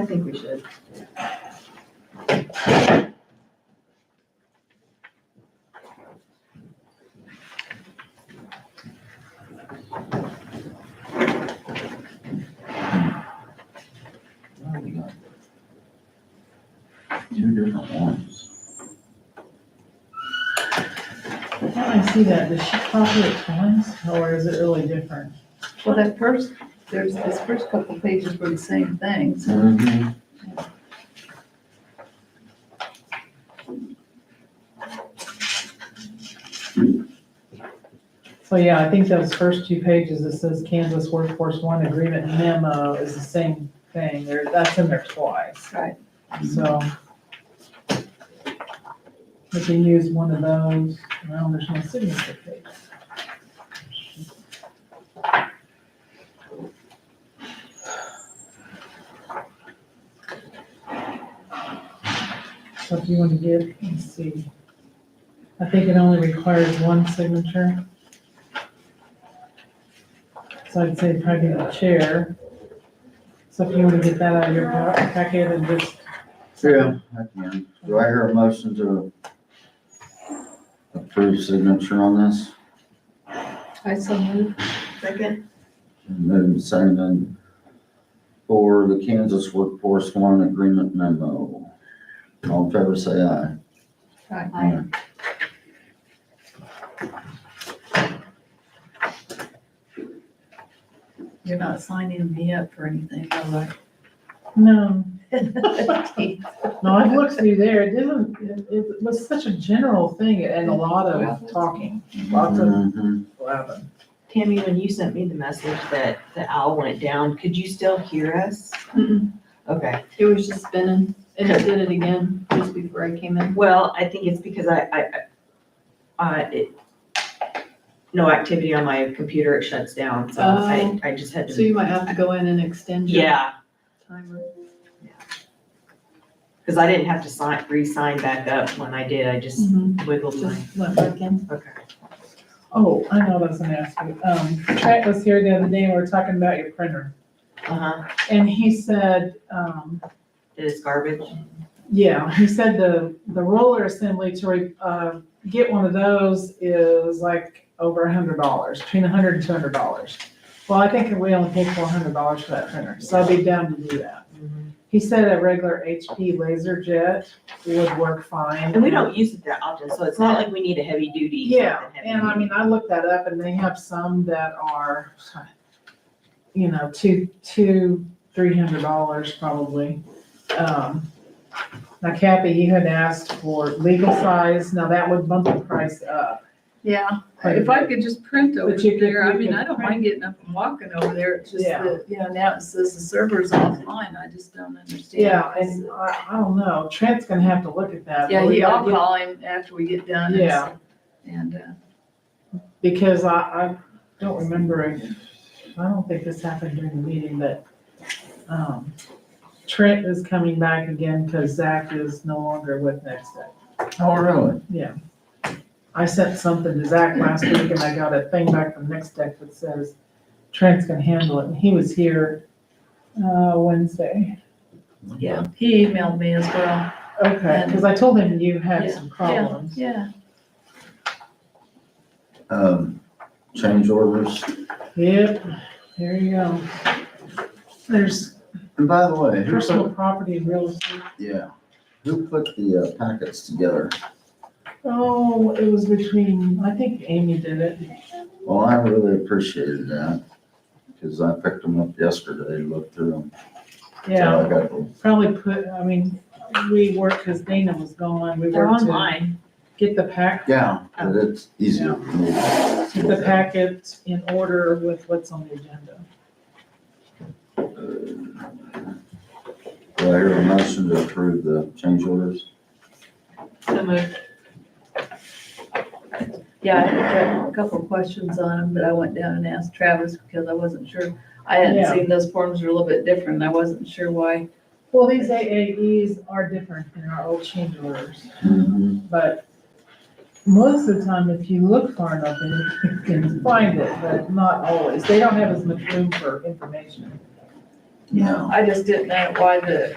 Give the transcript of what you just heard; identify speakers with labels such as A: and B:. A: I think we should.
B: Well, we got Two different ones.
C: How do I see that? Does she copy it once or is it really different?
A: Well, that first, there's, this first couple pages were the same thing, so
B: Mm-hmm.
C: So yeah, I think those first two pages that says Kansas Workforce One Agreement memo is the same thing. There, that's in there twice.
A: Right.
C: So. We can use one of those. Well, there's no signature page. So if you want to give, let's see. I think it only requires one signature. So I'd say probably the chair. So if you want to get that out of your pa- packet and just,
B: True. I can. Do I hear a motion to approve signature on this?
A: I so move. Second.
B: And then sign in for the Kansas Workforce One Agreement memo. All in favor, say aye.
A: Aye. You're not signing me up for anything, though,
C: no,
A: right?
C: no, I looked through there, it didn't, it- it was such a general thing and a lot of talking, lots of
B: Mhm.
C: blabbing.
D: Tammy, when you sent me the message that the owl went down, could you still hear us?
E: Mm-mm.
D: Okay,
E: It was just spinning, and it did it again just before I came in.
D: well, I think it's because I, I, I- uh, it, no activity on my computer, it shuts down, so I, I just had
E: So
D: to,
E: you might have to go in and extend your
D: yeah,
E: timer.
D: because I didn't have to sign, re-sign back up when I did, I just
E: Mhm.
D: wiggled my,
E: Just went back in.
D: okay.
C: Oh, I know that's an ask you, um, Trent was here the other day, and we were talking about your printer,
D: Uh-huh,
C: and he said, um,
D: it is garbage.
C: Yeah, he said the, the roller assembly to, re- uh, get one of those is like over a hundred dollars, between a hundred and two hundred dollars. Well, I think we only paid four hundred dollars for that printer, so I'd be down to do that.
D: Mm-hmm.
C: He said a regular HP laser jet would work fine.
D: And we don't use it that often, so it's not like we need a heavy duty.
C: Yeah,
D: something heavy.
C: and I mean, I looked that up and they have some that are, you know, two, two, three hundred dollars probably. Um, now Kathy, you had asked for legal size, now that would bump the price up.
A: Yeah, if I could just print over
C: But you could-
A: there, I
C: you
A: mean,
C: could
A: I don't
C: print.
A: mind getting up and walking over there, it's just
C: Yeah.
A: that, you know, now it says the server's offline, I just don't understand.
C: Yeah, and I, I don't know, Trent's gonna have to look at that.
A: Yeah,
C: but we
A: yeah, I'll
C: gotta get-
A: call him after we get done. and
C: Yeah.
A: s- And, uh,
C: Because I, I don't remember, if- I don't think this happened during the meeting, but, um, Trent is coming back again because Zach is no longer with Next Step.
B: Oh, really?
C: I sent something to Zach last week and I got a thing back from Next Tech that says Trent's gonna handle it, and he was here, uh, Wednesday.
D: Yeah.
A: he emailed me as well,
C: Okay, because I told him you had some problems.
A: yeah.
B: Um, change orders.
C: Yep, there you go. There's
B: And by the way, who put,
C: personal property and real estate.
B: yeah, who put the uh, packets together?
C: Oh, it was between, I think Amy did it.
B: Well, I really appreciated that, because I picked them up yesterday, looked through them.
C: Yeah,
B: I got them.
C: probably put, I mean, we worked, because Dana was gone, we
D: They're
C: worked to
D: online.
C: get the pack,
B: Yeah, but it's easier for me.
C: get the packet in order with what's on the agenda.
B: Do I hear a motion to approve the change orders?
D: So moved.
A: Yeah, I had a couple of questions on them, but I went down and asked Travis because I wasn't sure. I hadn't
C: Yeah.
A: seen those forms were a little bit different, and I wasn't sure why.
C: Well, these AAEs are different than our old change orders,
B: Mm-hmm.
C: but most of the time, if you look far enough, then you can find it, but not always. They don't have as much room for information.
B: No.
A: I just didn't know why the